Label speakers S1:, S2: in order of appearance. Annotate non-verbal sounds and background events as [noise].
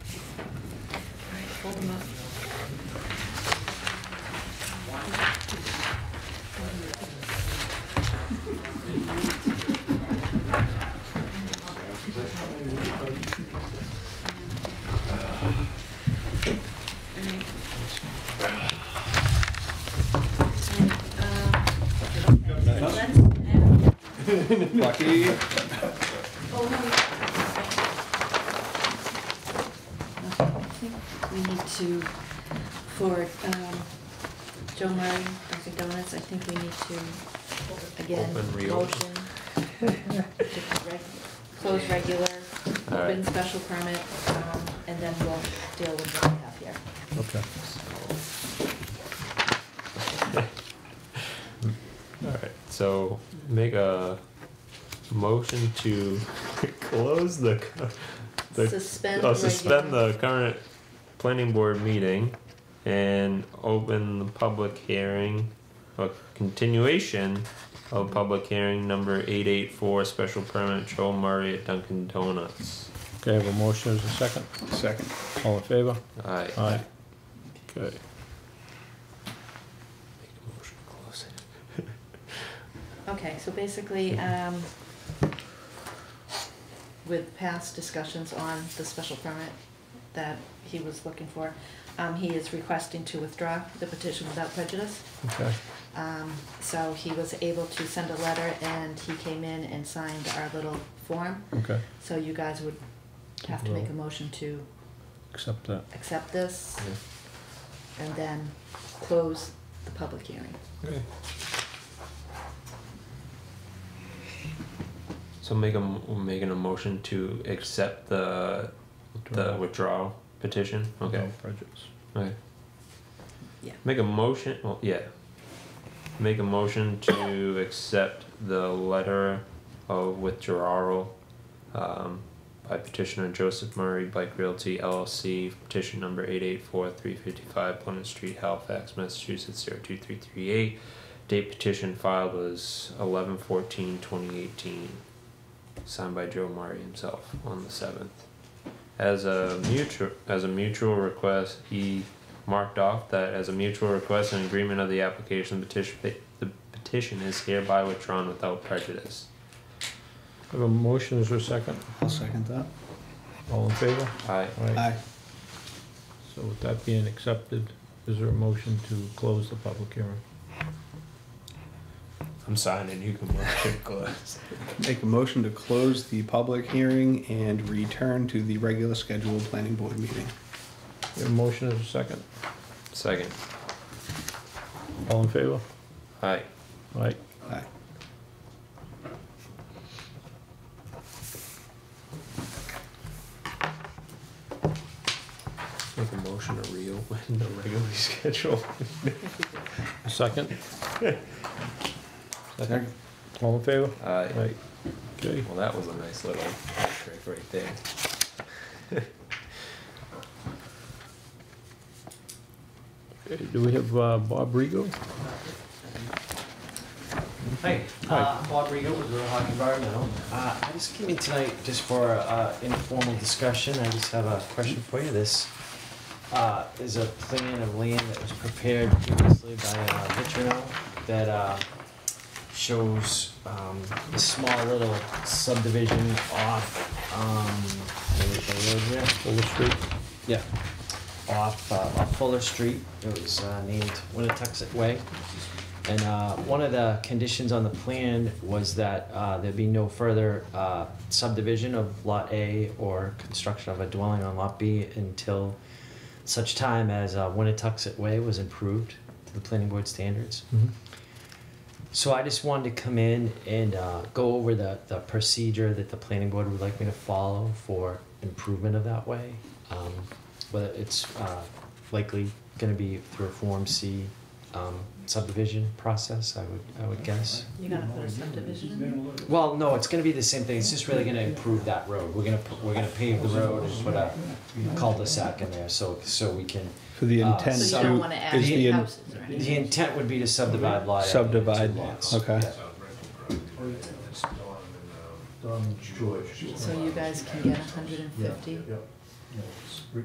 S1: Hold them up. And, uh, let's add-
S2: Lucky.
S1: Oh, no, no. Okay, I think We need to, for um, Joe Murray, Dunkin' Donuts, I think we need to,
S3: Open,
S1: again,
S3: reopen.
S1: motion. to reg- Close regular,
S3: All right.
S1: open special permit, um, and then we'll deal with what we have here.
S3: Okay. Alright, so make a motion to [laughs] close the. cu- the-
S1: Suspend
S3: uh, Suspend
S1: regular.
S3: the current planning board meeting and open the public hearing, a continuation of public hearing number eight eight four, special permit Joel Murray at Dunkin' Donuts.
S4: Okay, I have a motion as a second.
S2: Second.
S4: All in favor?
S3: Aye.
S4: Aye. Okay.
S3: Make a motion to close it.
S1: Okay, so basically, um, with past discussions on the special permit that he was looking for, um, he is requesting to withdraw the petition without prejudice.
S4: Okay.
S1: Um, so he was able to send a letter and he came in and signed our little form.
S4: Okay.
S1: So you guys would have to make a motion to
S4: Accept that.
S1: accept this
S3: Yeah.
S1: and then close the public hearing.
S3: Okay. So make a, m- we're making a motion to accept the, the withdrawal petition, okay,
S4: No prejudice.
S3: okay.
S1: Yeah.
S3: Make a motion, well, yeah. Make a motion to accept the letter of withdrawal, um, by petitioner Joseph Murray Bike Realty LLC, petition number eight eight four three fifty-five Plymouth Street, Halifax, Massachusetts, zero two three three eight. Date petition filed was eleven fourteen twenty eighteen, signed by Joe Murray himself on the seventh. As a mutual, as a mutual request, he marked off that as a mutual request and agreement of the application, petition, the petition is hereby withdrawn without prejudice.
S4: I have a motion as a second.
S2: I'll second that.
S4: All in favor?
S3: Aye.
S2: Aye.
S4: So with that being accepted, is there a motion to close the public hearing?
S3: I'm signing, you can motion close.
S2: Make a motion to close the public hearing and return to the regular scheduled planning board meeting.
S4: You have a motion as a second.
S3: Second.
S4: All in favor?
S3: Aye.
S4: Aye.
S2: Aye.
S3: Make a motion to reopen the regularly [laughs] scheduled.
S4: A
S2: [laughs]
S4: second.
S2: Second.
S4: All in favor?
S3: Aye.
S4: Aye. Okay.
S3: Well, that was a nice little trick right there.
S4: Okay, Do we have uh, Bob Rego?
S5: Hi, uh, Bob Rigo with Real Hockey Environmental. Uh, I just came in tonight just for uh, informal discussion. I just have a question for you. This uh, is a plan of land that was prepared previously by uh, Vitrino that uh, shows um, a small little subdivision off, um, what is the road here?
S4: Fuller Street?
S5: Yeah. Off, uh, off Fuller Street, it was, uh, named Winnetoxet Way. And, uh, one of the conditions on the plan was that, uh, there be no further, uh, subdivision of Lot A or construction of a dwelling on Lot B until such time as, uh, Winnetoxet Way was improved to the planning board standards. So I just wanted to come in and uh, go over the, the procedure that the planning board would like me to follow for improvement of that way. Um, whether it's uh, likely going to be through a Form C um, subdivision process, I would I would guess.
S1: You're gonna put a subdivision in?
S5: Well, no, it's going to be the same thing. It's just really going to improve that road. We're gonna pu- we're gonna pave the road and put a cul-de-sac in there, so so we can.
S2: So the
S5: Uh,
S2: intent
S1: So
S5: so
S1: you don't wanna
S2: to,
S1: add
S2: is the,
S1: any
S2: in-
S1: houses or
S5: The
S1: anything?
S5: intent would be to subdivide lot. A into two
S2: Subdivide,
S5: lots.
S2: okay.
S5: Yeah.
S1: So you guys can get hundred and fifty?